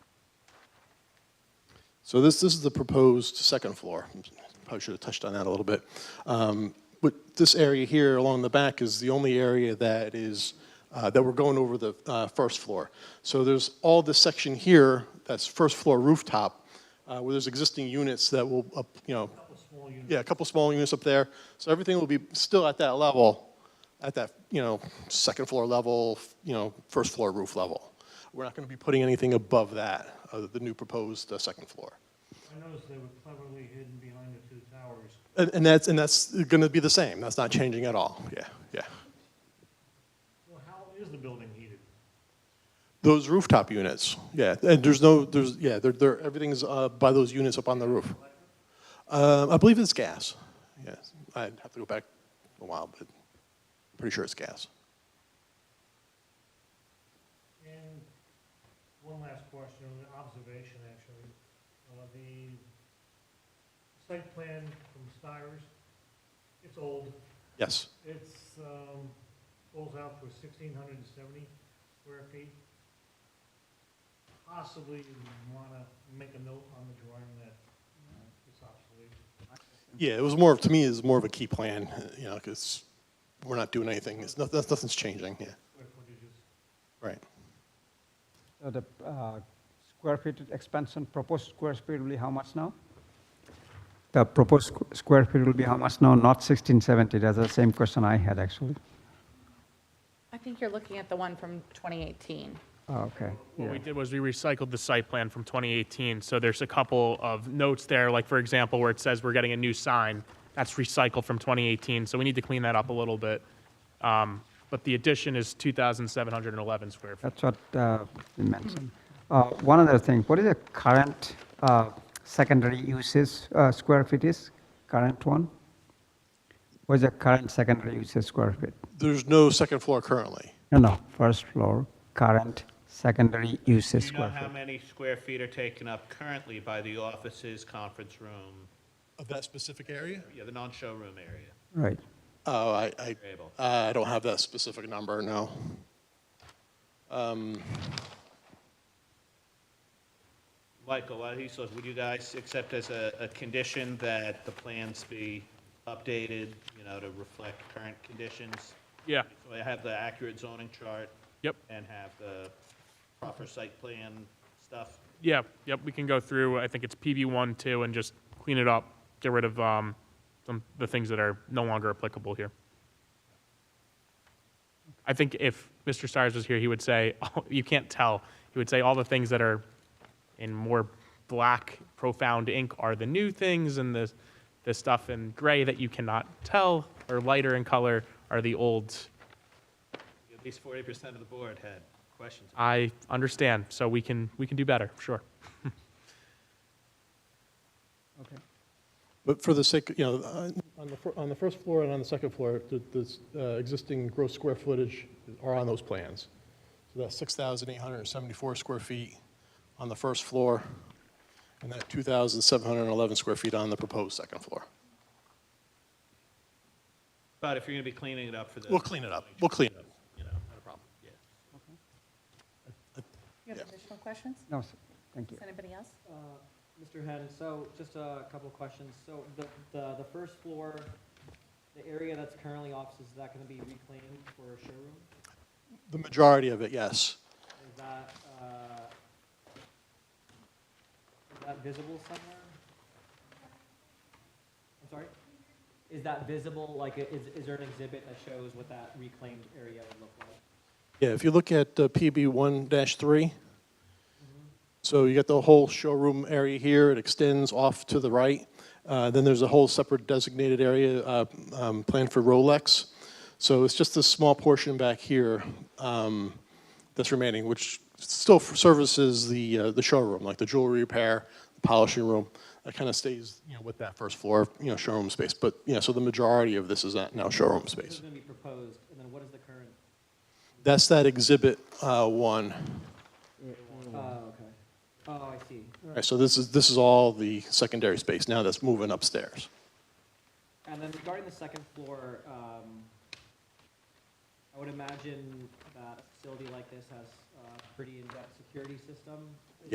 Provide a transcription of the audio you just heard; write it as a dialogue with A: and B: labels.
A: So this, this is the proposed second floor. Probably should have touched on that a little bit. Um, But this area here along the back is the only area that is, uh, that we're going over the uh, first floor. So there's all this section here, that's first floor rooftop, uh, where there's existing units that will, up- you know. Yeah, a couple small units up there. So everything will be still at that level, at that, you know, second floor level, you know, first floor roof level. We're not going to be putting anything above that, uh, the new proposed uh, second floor.
B: I noticed they were cleverly hidden behind the two towers.
A: And, and that's, and that's going to be the same. That's not changing at all. Yeah, yeah.
B: Well, how is the building heated?
A: Those rooftop units, yeah, and there's no, there's, yeah, they're, they're, everything's uh, by those units up on the roof. Um, I believe it's gas, yes. I'd have to go back a while, but I'm pretty sure it's gas.
B: And one last question, an observation actually. Uh, The site plan from Stires, it's old.
A: Yes,
B: It's, um, goes out for sixteen hundred and seventy square feet. Possibly you wanna make a note on the drawing that uh, it's obsolete.
A: yeah, it was more, of- to me, it's more of a key plan, you know, because we're not doing anything, it's, noth- nothing's changing, yeah,
B: Square footage is
A: right.
C: So the uh, square feet expansion, proposed square feet will be how much now? The proposed squ- square feet will be how much now? Not 1670, that's the same question I had, actually.
D: I think you're looking at the one from 2018.
C: Oh, Okay,
E: What
C: yeah.
E: we did was we recycled the site plan from 2018, so there's a couple of notes there, like for example, where it says we're getting a new sign, that's recycled from 2018, so we need to clean that up a little bit. Um, But the addition is 2,711 square feet.
C: That's what uh, we mentioned. Uh, One other thing, what is the current uh, secondary uses, uh, square feet is, current one? What is the current secondary uses square feet?
A: There's no second floor currently.
C: No, no, first floor, current secondary uses
F: Do you know
C: square
F: how
C: feet.
F: many square feet are taken up currently by the offices, conference room,
A: Of that specific area?
F: yeah, the non-showroom area?
C: Right.
A: Oh, I, I,
F: Able.
A: uh, I don't have that specific number, no.
F: Michael, while he's looking, would you guys accept as a, a condition that the plans be updated, you know, to reflect current conditions?
E: Yeah,
F: So I have the accurate zoning chart
E: yep,
F: and have the proper site plan stuff?
E: yeah, yep, we can go through, I think it's PB1, 2, and just clean it up, get rid of um, some, the things that are no longer applicable here. I think if Mr. Stires was here, he would say, oh, you can't tell. He would say all the things that are in more black, profound ink are the new things, and the, the stuff in gray that you cannot tell or lighter in color are the old.
F: At least forty percent of the board had questions.
E: I understand, so we can, we can do better, sure.
C: Okay.
A: But for the sake, you know, uh, on the, fir- on the first floor and on the second floor, the, the uh, existing gross square footage are on those plans. So that's 6,874 square feet on the first floor, and that 2,711 square feet on the proposed second floor.
F: But if you're gonna be cleaning it up for the.
A: We'll clean it up, we'll clean it up.
F: You know, not a problem, yeah.
D: You have additional questions?
C: No, sir. thank you.
D: Does anybody else?
G: Uh, Mr. Hen, so just a couple of questions. So the, the, the first floor, the area that's currently offices, is that gonna be reclaimed for a showroom?
A: The majority of it, yes.
G: Is that, uh, is that visible somewhere? I'm sorry? Is that visible, like, i- is, is there an exhibit that shows what that reclaimed area would look like?
A: Yeah, if you look at uh, PB one three, so you got the whole showroom area here, it extends off to the right. Uh, Then there's a whole separate designated area uh, um, planned for Rolex. So it's just this small portion back here um, that's remaining, which still services the, uh, the showroom, like the jewelry repair, the polishing room. That kind of stays, you know, with that first floor, you know, showroom space. But, you know, so the majority of this is at now showroom
G: This is
A: space.
G: gonna be proposed, and then what is the current?
A: That's that exhibit uh, one.
G: Oh, okay. Oh, I see.
A: All right, so this is, this is all the secondary space now that's moving upstairs.
G: And then regarding the second floor, um, I would imagine that a facility like this has a pretty in-depth security system.